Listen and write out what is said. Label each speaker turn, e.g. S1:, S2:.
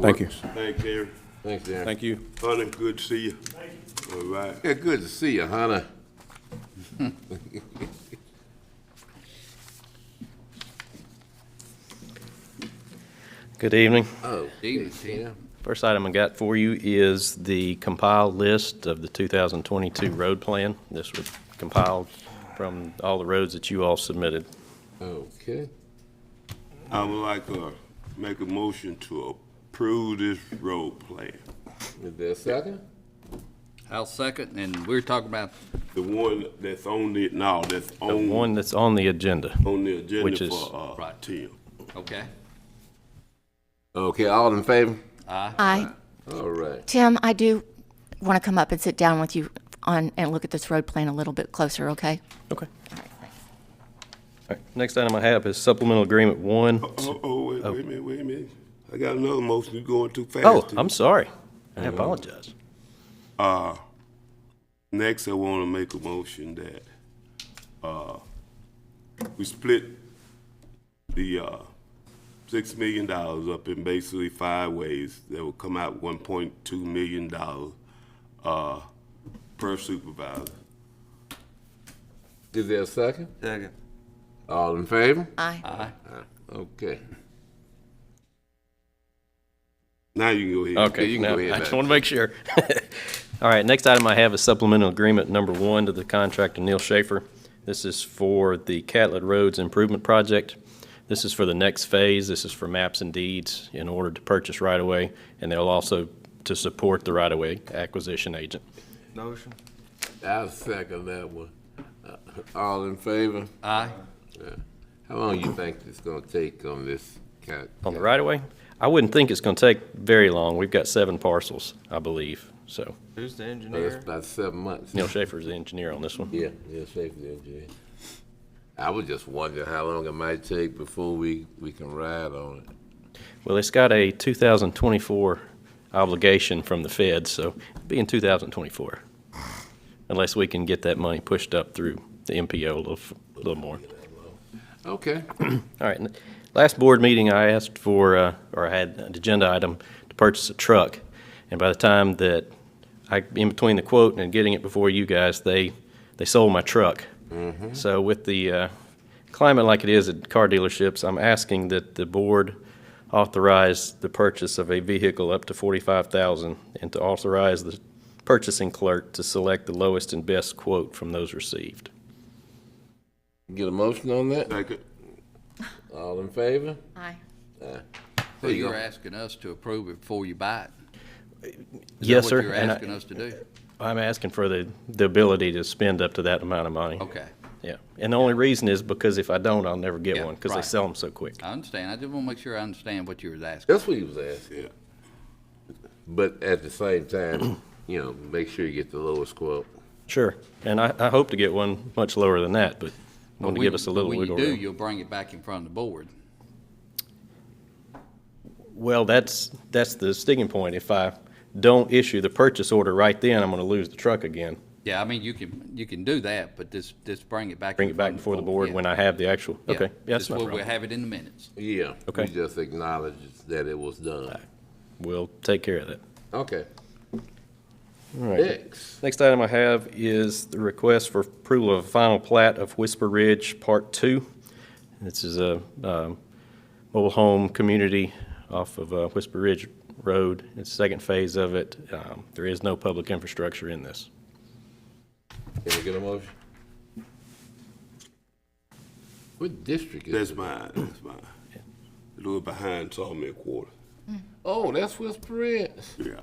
S1: Thank you.
S2: Thanks, Aaron.
S3: Thanks, Darren.
S1: Thank you.
S2: Honey, good to see you. All right.
S3: Yeah, good to see you, Hannah.
S4: Good evening.
S3: Oh, evening, Tina.
S4: First item I got for you is the compiled list of the 2022 road plan. This was compiled from all the roads that you all submitted.
S3: Okay.
S2: I would like to make a motion to approve this road plan.
S3: Is there a second?
S5: I'll second, and we're talking about,
S2: The one that's on the, no, that's
S4: The
S2: on,
S4: one that's on the agenda.
S2: on the
S4: which
S2: agenda
S4: is-
S2: for, uh,
S5: Right.
S2: Tim.
S5: okay,
S3: Okay, all in favor?
S6: Hi,
S3: All right.
S6: Tim, I do want to come up and sit down with you on, and look at this road plan a little bit closer, okay?
S4: Okay. All right, Next item I have is supplemental agreement one.
S2: Oh, oh, wait, wait a minute, wait a minute. I got another motion. You're going too fast.
S4: Oh, I'm sorry. I apologize.
S2: Next, I want to make a motion that, uh, we split the, uh, six million dollars up in basically five ways that will come out one point two million dollars, uh, per supervisor.
S3: Is there a second?
S7: Second.
S3: All in favor?
S6: Aye.
S3: Okay.
S2: Now you can go ahead.
S4: Okay,
S3: Yeah, you can
S4: now,
S3: go ahead,
S4: I
S3: Matt.
S4: just want to make sure. All right, next item I have is supplemental agreement number one to the contract of Neil Schaefer. This is for the Catlett Roads Improvement Project. This is for the next phase. This is for maps and deeds in order to purchase right-of-way, and they'll also to support the right-of-way acquisition agent.
S7: Motion.
S3: I'll second that one. Uh, All in favor?
S5: aye.
S3: How long you think it's gonna take on this cat?
S4: On the right-of-way, I wouldn't think it's going to take very long. We've got seven parcels, I believe. So
S7: Who's the
S3: Oh, That's
S7: engineer?
S3: about seven months.
S4: Neil Schaefer is the engineer on this one.
S3: Yeah, yeah, safety engineer. I was just wondering how long it might take before we, we can ride on it.
S4: Well, it's got a 2024 obligation from the Fed, so it'll be in 2024, unless we can get that money pushed up through the MPO a little, f- a little more.
S3: Okay.
S4: All right, n- last board meeting, I asked for, uh, or I had an agenda item to purchase a truck, and by the time that I, in between the quote and getting it before you guys, they, they sold my truck.
S5: Mm-hmm.
S4: So with the uh, climate like it is at car dealerships, I'm asking that the board authorize the purchase of a vehicle up to 45,000 and to authorize the purchasing clerk to select the lowest and best quote from those received.
S3: Get a motion on that?
S2: Second.
S3: All in favor? Ah.
S6: Aye.
S5: So
S3: you
S5: you're
S3: go.
S5: asking us to approve it before you buy it? Is that
S4: Yes, sir.
S5: what you're
S4: and I-
S5: asking us to do?
S4: I'm asking for the, the ability to spend up to that amount of money.
S5: Okay,
S4: Yeah. And the only reason is because if I don't, I'll never get
S5: Yeah,
S4: one because they
S5: right.
S4: sell them so quick.
S5: I understand, I just want to make sure I understand what you was asking.
S3: That's what he was asking.
S2: Yeah.
S3: But at the same time, you know, make sure you get the lowest quote.
S4: Sure. And I, I hope to get one much lower than that, but I want to give us a little wiggle
S5: When you do,
S4: room.
S5: you'll bring it back in front of the board.
S4: Well, that's, that's the sticking point. If I don't issue the purchase order right then, I'm going to lose the truck again.
S5: Yeah, I mean, you can, you can do that, but just, just bring it back.
S4: Bring it back before the board when I have the actual, okay. Yeah, that's no
S5: We'll
S4: problem.
S5: have it in the minutes.
S3: Yeah.
S4: Okay.
S3: We just acknowledge that it was done.
S4: We'll take care of that.
S3: Okay.
S4: All right.
S3: Next.
S4: Next item I have is the request for approval of a final plat of Whisper Ridge Part Two. This is a um, mobile home community off of uh, Whisper Ridge Road. It's the second phase of it. Um, There is no public infrastructure in this.
S3: Can we get a motion? What district is
S2: That's
S3: it?
S2: mine, that's mine. A little behind Sawmill Quarter.
S3: Oh, that's West Prince.
S2: Yeah.